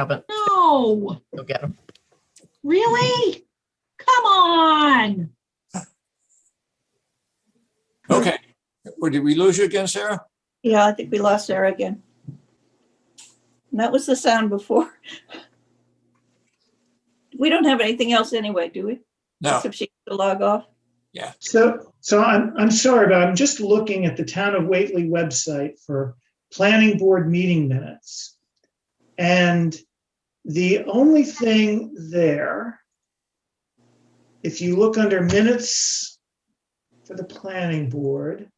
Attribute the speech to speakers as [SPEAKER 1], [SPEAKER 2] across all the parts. [SPEAKER 1] Haven't,
[SPEAKER 2] No,
[SPEAKER 1] you'll get them.
[SPEAKER 2] really? Come on.
[SPEAKER 3] Okay. Or did we lose you again, Sarah?
[SPEAKER 4] Yeah, I think we lost Sarah again. And that was the sound before. We don't have anything else anyway, do we?
[SPEAKER 3] No.
[SPEAKER 4] Except she had to log off.
[SPEAKER 5] So, so I'm, I'm sorry, but I'm just looking at the town of Whately website for planning board meeting minutes. And the only thing there, if you look under minutes for the planning board,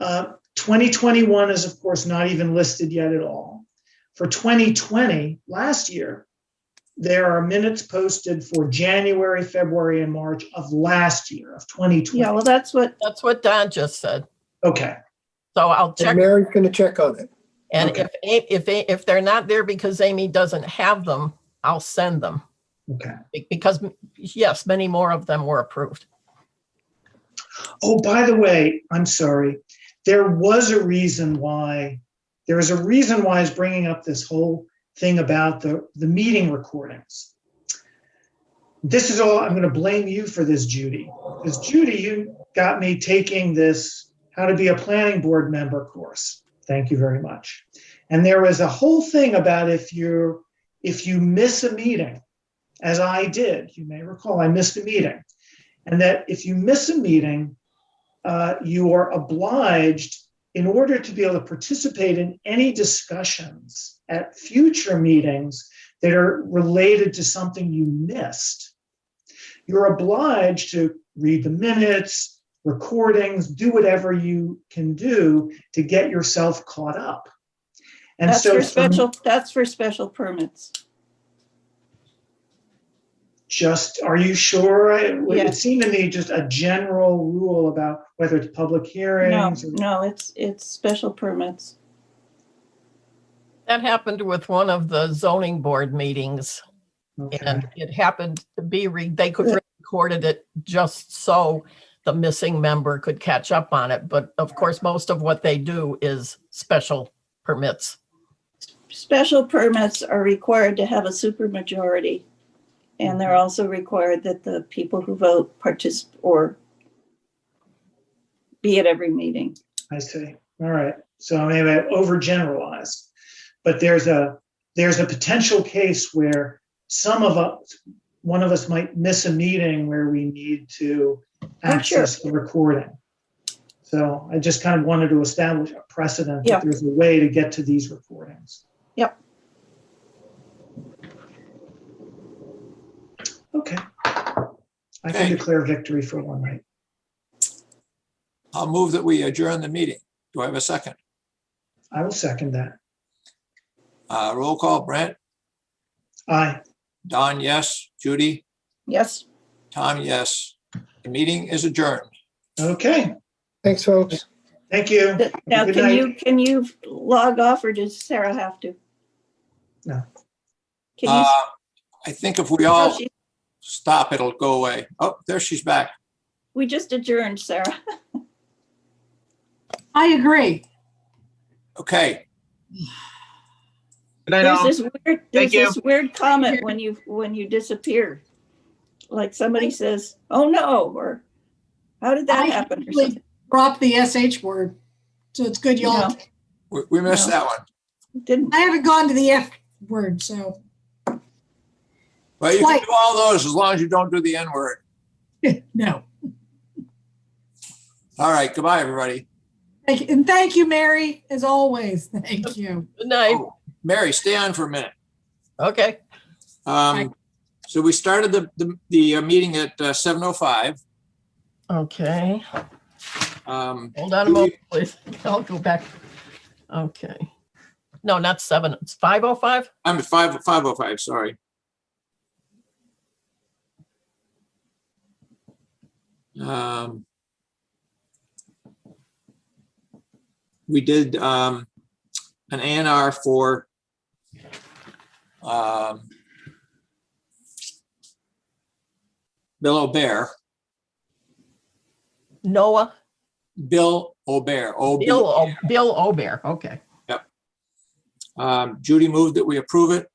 [SPEAKER 5] uh, 2021 is of course not even listed yet at all. For 2020, last year, there are minutes posted for January, February, and March of last year, of 2020.
[SPEAKER 4] Yeah, well, that's what,
[SPEAKER 1] That's what Don just said.
[SPEAKER 5] Okay,
[SPEAKER 1] So I'll
[SPEAKER 6] And
[SPEAKER 1] check.
[SPEAKER 6] Mary's going to check on it.
[SPEAKER 1] And
[SPEAKER 5] okay.
[SPEAKER 1] if, A- if, A- if they're not there because Amy doesn't have them, I'll send them.
[SPEAKER 5] okay.
[SPEAKER 1] Be- Because, yes, many more of them were approved.
[SPEAKER 5] Oh, by the way, I'm sorry. There was a reason why, there is a reason why I was bringing up this whole thing about the, the meeting recordings. This is all, I'm going to blame you for this, Judy. Because Judy, you got me taking this How to Be a Planning Board Member course. Thank you very much. And there was a whole thing about if you're, if you miss a meeting, as I did, you may recall, I missed a meeting and that if you miss a meeting, uh, you are obliged, in order to be able to participate in any discussions at future meetings that are related to something you missed, you're obliged to read the minutes, recordings, do whatever you can do to get yourself caught up. And
[SPEAKER 4] that's
[SPEAKER 5] so
[SPEAKER 4] for
[SPEAKER 5] for
[SPEAKER 4] special, that's for special permits.
[SPEAKER 5] just are you sure I- it
[SPEAKER 4] Yes.
[SPEAKER 5] seemed to me just a general rule about whether it's public
[SPEAKER 4] No,
[SPEAKER 5] hearings or
[SPEAKER 4] no, it's, it's special permits.
[SPEAKER 1] That happened with one of the zoning board meetings
[SPEAKER 5] Okay.
[SPEAKER 1] and it happened to be, re- they could recorded it just so the missing member could catch up on it. But of course, most of what they do is special permits.
[SPEAKER 4] Special permits are required to have a supermajority. And they're also required that the people who vote participate or be at every meeting.
[SPEAKER 5] I see. All right. So maybe I overgeneralized, but there's a there's a potential case where some of us, one of us might miss a meeting where we need to
[SPEAKER 4] Oh, sure.
[SPEAKER 5] access the recording. So I just kind of wanted to establish a precedent
[SPEAKER 4] Yeah.
[SPEAKER 5] that there's a way to get to these recordings.
[SPEAKER 4] Yep.
[SPEAKER 5] Okay. I can
[SPEAKER 3] Okay.
[SPEAKER 5] declare victory for one night.
[SPEAKER 3] I'll move that we adjourn the meeting. Do I have a second?
[SPEAKER 5] I will second that.
[SPEAKER 3] Uh, roll call, Brent,
[SPEAKER 5] Aye.
[SPEAKER 3] Don, yes, Judy,
[SPEAKER 4] Yes,
[SPEAKER 3] Tom, yes. The meeting is adjourned.
[SPEAKER 5] Okay.
[SPEAKER 6] Thanks, folks.
[SPEAKER 5] Thank you.
[SPEAKER 4] Th- now
[SPEAKER 5] Good
[SPEAKER 4] can
[SPEAKER 5] night.
[SPEAKER 4] you, can you log off or does Sarah have to?
[SPEAKER 5] No.
[SPEAKER 4] Can
[SPEAKER 3] Uh, I think if we
[SPEAKER 4] you,
[SPEAKER 3] all
[SPEAKER 4] Oh, she-
[SPEAKER 3] stop, it'll go away. Oh, there she's back.
[SPEAKER 4] we just adjourned, Sarah.
[SPEAKER 2] I agree.
[SPEAKER 3] Okay,
[SPEAKER 7] Good night,
[SPEAKER 4] There's
[SPEAKER 7] all.
[SPEAKER 4] this weird, there's
[SPEAKER 7] you.
[SPEAKER 4] this weird comment when you, when you disappear. Like somebody says, oh no, or how did that
[SPEAKER 2] I
[SPEAKER 4] happen? or
[SPEAKER 2] usually
[SPEAKER 4] something.
[SPEAKER 2] Drop the SH word. So it's good y'all.
[SPEAKER 4] No.
[SPEAKER 3] we, we missed
[SPEAKER 4] No.
[SPEAKER 3] that one.
[SPEAKER 4] Didn't,
[SPEAKER 2] I haven't gone to the F word, so.
[SPEAKER 3] Well, you can
[SPEAKER 2] Twice.
[SPEAKER 3] do all those as long as you don't do the N word.
[SPEAKER 2] No.
[SPEAKER 3] All right, goodbye, everybody.
[SPEAKER 2] Thank you. And thank you, Mary, as always. Thank you.
[SPEAKER 1] Good night.
[SPEAKER 3] Oh, Mary, stay on for a minute.
[SPEAKER 1] Okay.
[SPEAKER 2] Right.
[SPEAKER 3] Um, so we started the, the, the uh, meeting at uh, 7:05.
[SPEAKER 1] Okay.
[SPEAKER 3] Um,
[SPEAKER 1] Hold on a moment, please. I'll go back. Okay. No, not seven. It's five oh five.
[SPEAKER 3] I'm at 5, 5:05, sorry. Um, we did, um, an A and R for, um, Bill O'Bear,
[SPEAKER 1] Noah,
[SPEAKER 3] Bill O'Bear, O B
[SPEAKER 1] Bill, O- Bill Obear. Okay.
[SPEAKER 3] Um, Judy moved that we approve it.